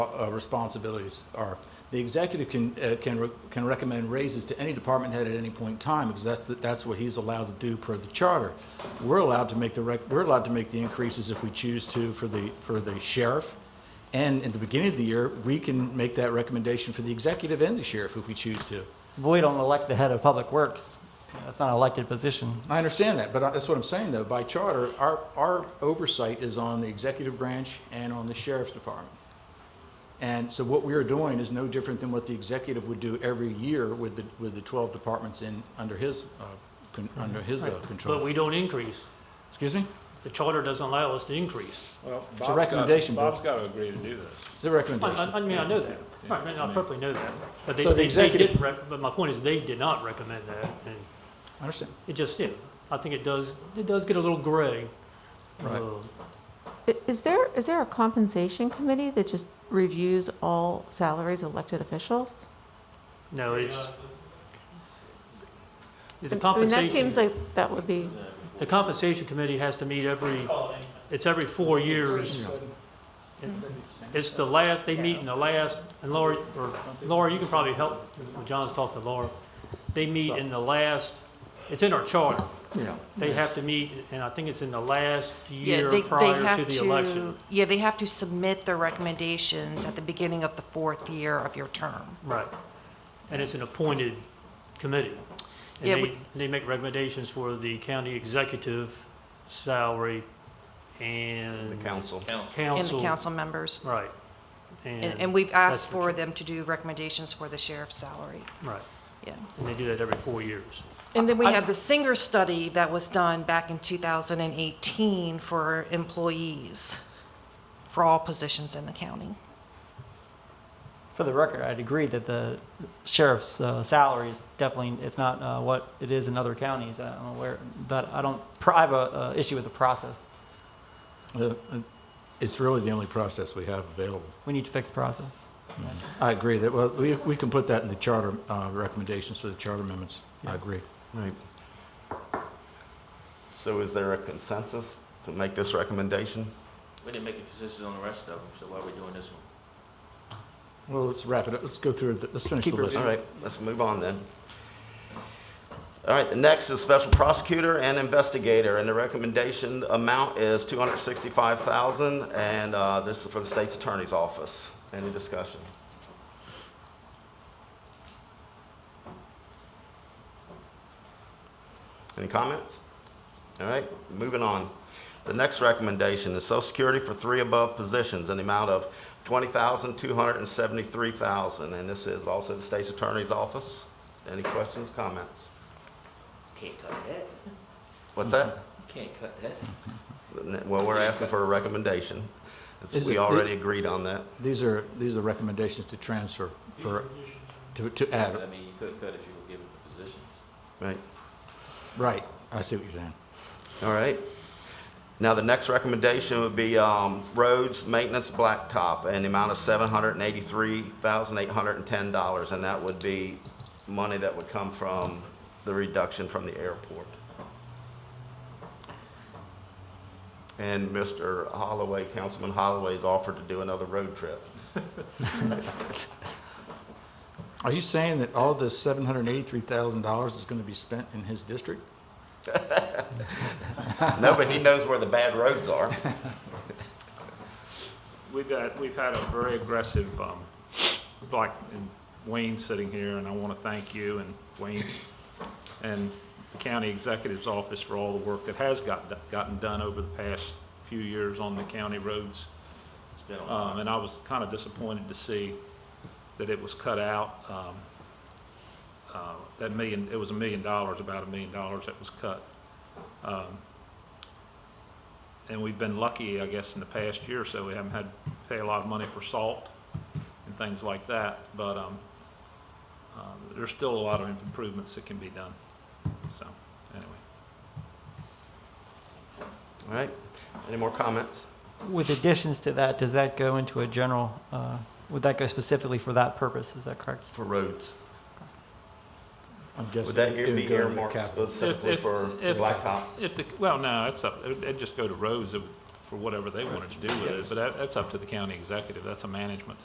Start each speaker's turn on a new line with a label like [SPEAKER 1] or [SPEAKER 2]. [SPEAKER 1] uh, responsibilities are. The executive can, uh, can, re- can recommend raises to any department head at any point in time, because that's, the- that's what he's allowed to do per the charter. We're allowed to make the, rec- we're allowed to make the increases if we choose to for the, for the sheriff. And at the beginning of the year, we can make that recommendation for the executive and the sheriff if we choose to.
[SPEAKER 2] We don't elect the head of public works. That's not an elected position.
[SPEAKER 1] I understand that, but I- that's what I'm saying, though. By charter, our, our oversight is on the executive branch and on the sheriff's department. And so what we are doing is no different than what the executive would do every year with the, with the 12 departments in, under his, uh, con- under his uh,
[SPEAKER 3] But
[SPEAKER 1] control.
[SPEAKER 3] we don't increase.
[SPEAKER 1] Excuse me?
[SPEAKER 3] The charter doesn't allow us to increase.
[SPEAKER 1] a
[SPEAKER 4] Well, Bob's got-
[SPEAKER 1] recommendation, Bill.
[SPEAKER 4] Bob's got to agree to do this.
[SPEAKER 1] It's a
[SPEAKER 3] I,
[SPEAKER 1] recommendation.
[SPEAKER 3] I- I mean, I know that. Right, I mean, I perfectly know that. But they,
[SPEAKER 1] So the
[SPEAKER 3] they- they
[SPEAKER 1] executive-
[SPEAKER 3] didn't, rec- but my point is they did not recommend that. And
[SPEAKER 1] I understand.
[SPEAKER 3] it just, yeah, I think it does, it does get a little gray.
[SPEAKER 1] Right.
[SPEAKER 3] Uh,
[SPEAKER 5] I- Is there, is there a compensation committee that just reviews all salaries of elected officials?
[SPEAKER 3] No, it's. The
[SPEAKER 5] I mean, that seems
[SPEAKER 3] compensation,
[SPEAKER 5] like that would be,
[SPEAKER 3] the compensation committee has to meet every, it's every four years. It's the last, they meet in the last, and Laura, or Laura, you can probably help, when John's talked to Laura. They meet in the last, it's in our charter.
[SPEAKER 1] Yeah.
[SPEAKER 3] They have to meet, and I think it's in the last
[SPEAKER 6] Yeah,
[SPEAKER 3] year
[SPEAKER 6] they, they
[SPEAKER 3] prior to
[SPEAKER 6] have
[SPEAKER 3] the election.
[SPEAKER 6] to, yeah, they have to submit their recommendations at the beginning of the fourth year of your term.
[SPEAKER 3] Right. And it's an appointed committee. And
[SPEAKER 6] Yeah,
[SPEAKER 3] they,
[SPEAKER 6] we-
[SPEAKER 3] they make recommendations for the county executive salary and. The council.
[SPEAKER 6] And the
[SPEAKER 3] Council,
[SPEAKER 6] council members.
[SPEAKER 3] right.
[SPEAKER 6] And, and we've asked
[SPEAKER 3] that's what
[SPEAKER 6] for them to do recommendations for the sheriff's salary,
[SPEAKER 3] Right.
[SPEAKER 6] yeah.
[SPEAKER 3] And they do that every four years.
[SPEAKER 6] And then we had the Singer study that was done back in 2018 for employees, for all positions in the county.
[SPEAKER 2] For the record, I'd agree that the sheriff's uh, salary is definitely, it's not uh, what it is in other counties. uh, I'm aware, but I don't, I have a uh, issue with the process.
[SPEAKER 1] Uh, uh, It's really the only process we have available.
[SPEAKER 2] We need to fix the process.
[SPEAKER 1] I agree that, well, we, we can put that in the charter, uh, recommendations for the charter amendments. I agree.
[SPEAKER 7] Right. So is there a consensus to make this recommendation?
[SPEAKER 8] We didn't make a decision on the rest of them, so why are we doing this one?
[SPEAKER 1] Well, let's wrap it up. Let's go through, the- let's finish the
[SPEAKER 2] Keep it
[SPEAKER 1] list.
[SPEAKER 7] All right, let's move on then. All right, the next is special prosecutor and investigator, and the recommendation amount is two hundred sixty-five thousand, and, uh, this is for the state's attorney's office. Any discussion? Any comments? All right, moving on. The next recommendation is social security for three above positions in the amount of twenty thousand, two hundred and seventy-three thousand, and this is also the state's attorney's office. Any questions, comments?
[SPEAKER 8] Can't cut that.
[SPEAKER 7] What's that?
[SPEAKER 8] Can't cut that.
[SPEAKER 7] Well, we're asking for a recommendation. It's-
[SPEAKER 1] Is it-
[SPEAKER 7] We already agreed on that.
[SPEAKER 1] These are, these are recommendations to transfer for, to, to add,
[SPEAKER 8] But I mean, you could cut if you were given the positions.
[SPEAKER 7] Right,
[SPEAKER 1] right, I see what you're saying.
[SPEAKER 7] all right. Now, the next recommendation would be um, roads, maintenance, blacktop, and the amount of $783,810. And that would be money that would come from the reduction from the airport. And Mr. Holloway, Councilman Holloway, has offered to do another road trip.
[SPEAKER 1] Are you saying that all this seven hundred and eighty-three thousand dollars is gonna be spent in his district?
[SPEAKER 7] No, but he knows where the bad roads are.
[SPEAKER 4] We've got, we've had a very aggressive, um, like, and Wayne's sitting here, and I want to thank you and Wayne and the county executive's office for all the work that has got, gotten done over the past few years on the county roads.
[SPEAKER 8] It's been on.
[SPEAKER 4] Um, and I was kind of disappointed to see that it was cut out. Um, uh, that million, it was a million dollars, about a million dollars that was cut. Um, And we've been lucky, I guess, in the past year or so, we haven't had to pay a lot of money for salt and things like that. But, um, uh, there's still a lot of improvements that can be done. So, anyway.
[SPEAKER 7] All right, any more comments?
[SPEAKER 2] With additions to that, does that go into a general, uh, would that go specifically for that purpose? Is that correct?
[SPEAKER 7] For roads.
[SPEAKER 1] I'm
[SPEAKER 7] Would
[SPEAKER 1] guessing.
[SPEAKER 7] that
[SPEAKER 1] it would
[SPEAKER 7] be
[SPEAKER 1] go into
[SPEAKER 7] earmarked
[SPEAKER 1] capital.
[SPEAKER 7] specifically
[SPEAKER 4] If- if-
[SPEAKER 7] for
[SPEAKER 4] if-
[SPEAKER 7] blacktop?
[SPEAKER 4] If the, well, no, it's up, it'd it'd just go to roads for whatever they wanted to do with it, but that, that's up to the county executive, that's a management